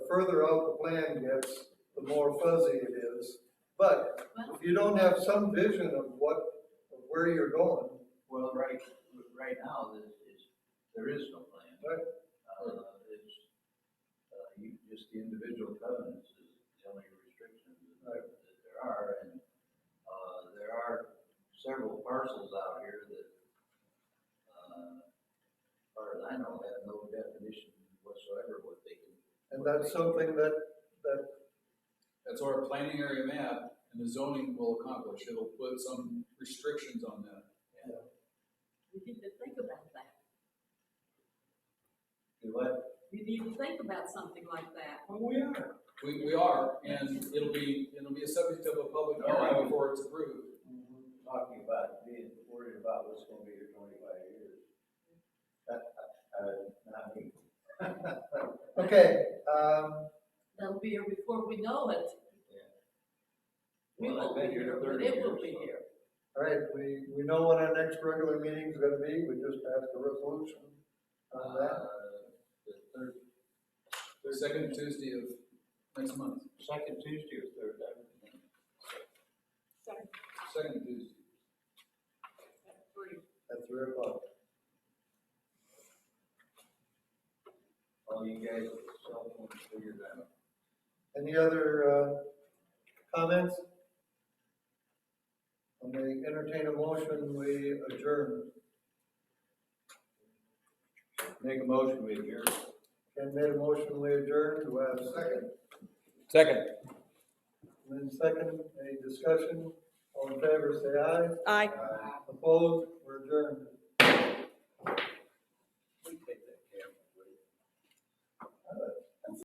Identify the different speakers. Speaker 1: further out the plan gets, the more fuzzy it is. But if you don't have some vision of what, of where you're going,
Speaker 2: Well, right, right now, this is, there is no plan.
Speaker 1: Right.
Speaker 2: Uh, it's, uh, you, just the individual covenants is the only restrictions that
Speaker 1: Right.
Speaker 2: that there are, and, uh, there are several parcels out here that, uh, as far as I know, have no definition whatsoever what they can.
Speaker 1: and that's something that, that,
Speaker 3: That's our planning area map, and the zoning will accomplish, it'll put some restrictions on that.
Speaker 4: You need to think about that.
Speaker 2: Do what?
Speaker 4: You need to think about something like that.
Speaker 5: Well, we are.
Speaker 3: We, we are, and it'll be, it'll be a subject of a public hearing before it's approved.
Speaker 2: Mm-hmm. Talking about being worried about what's gonna be here twenty-five years. Uh, uh, not me.
Speaker 1: okay, um,
Speaker 4: That'll be here before we know it.
Speaker 2: Yeah.
Speaker 4: We
Speaker 2: Well,
Speaker 4: won't
Speaker 2: I've
Speaker 4: be
Speaker 2: been here
Speaker 4: here, but
Speaker 2: 30
Speaker 4: it will
Speaker 2: years,
Speaker 4: be
Speaker 2: so.
Speaker 4: here.
Speaker 1: all right, we, we know when our next regular meeting's gonna be, we just passed a resolution on that.
Speaker 2: Uh, The third,
Speaker 3: The second Tuesday of next month,
Speaker 2: second Tuesday or third, I don't know.
Speaker 3: second Tuesday.
Speaker 4: Three.
Speaker 1: at three o'clock.
Speaker 2: All you guys with cell phones figured out.
Speaker 1: Any other, uh, comments? And we entertain a motion, we adjourn.
Speaker 2: Make a motion, we adjourn.
Speaker 1: Ken made a motion, we adjourn, do I have a second?
Speaker 3: Second.
Speaker 1: And then second, any discussion, all in favor, say aye.
Speaker 6: Aye.
Speaker 1: Opposed, we're adjourned.